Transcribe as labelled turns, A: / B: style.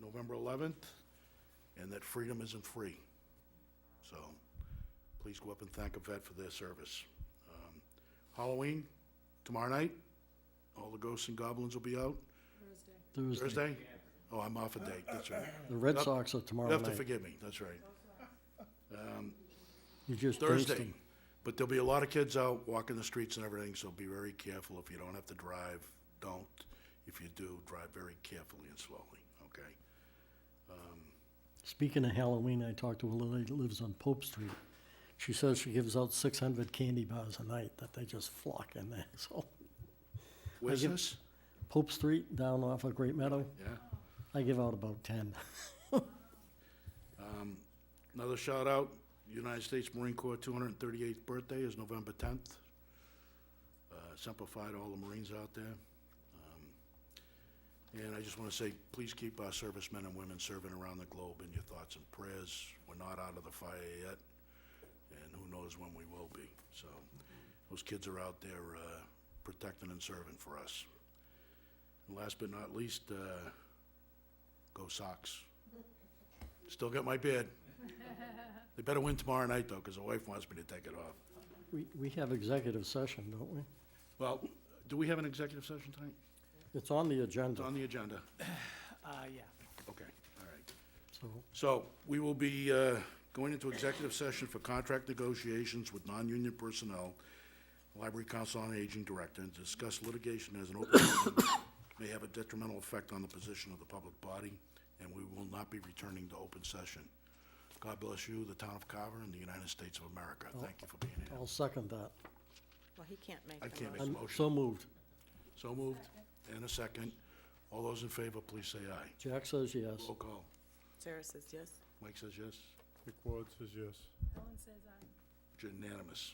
A: November 11th, and that freedom isn't free. So please go up and thank a vet for their service. Um, Halloween, tomorrow night, all the ghosts and goblins will be out.
B: Thursday.
A: Thursday? Oh, I'm off a date, that's right.
B: The Red
A: Yep.
B: Sox are
A: You
B: tomorrow
A: have to
B: night.
A: forgive me, that's right.
B: You just jinxed
A: Thursday.
B: them.
A: But there'll be a lot of kids out walking the streets and everything, so be very careful. If you don't have to drive, don't. If you do, drive very carefully and slowly, okay?
B: Speaking of Halloween, I talked to a lady that lives on Pope Street. She says she gives out six hundred candy bars a night that they just flock in there, so.
A: Where's
B: give-
A: this?
B: Pope Street down off of Great Meadow,
A: Yeah.
B: I give out about ten.
A: Another shout out, United States Marine Corps 238th birthday is November 10th. Uh, Semper Fi to all the Marines out there. Um, And I just want to say, please keep our servicemen and women serving around the globe in your thoughts and prayers. We're not out of the fire yet, and who knows when we will be. So those kids are out there uh, protecting and serving for us. And last but not least, uh, go Sox. Still got my bid. They better win tomorrow night, though, because the wife wants me to take it off.
B: We, we have executive session, don't we?
A: Well, do we have an executive session tonight?
B: It's on the
A: It's
B: agenda,
A: on the agenda.
C: Uh, yeah.
A: Okay, all right.
B: so
A: So we will be uh, going into executive session for contract negotiations with non-union personnel, Library Council on Aging Director, and discuss litigation as an open meeting may have a detrimental effect on the position of the public body, and we will not be returning to open session. God bless you, the town of Carver, and the United States of America.
C: Oh.
A: Thank you for being here.
B: I'll second that.
D: Well, he can't make
A: I
D: the
A: can't
D: motion.
A: make
B: I'm
A: motion.
B: so moved.
A: So moved. And a second. All those in favor, please say aye.
B: Jack says yes.
A: Roll call.
D: Sarah says yes.
A: Mike says yes.
E: Dick Ward says yes.
A: It's unanimous.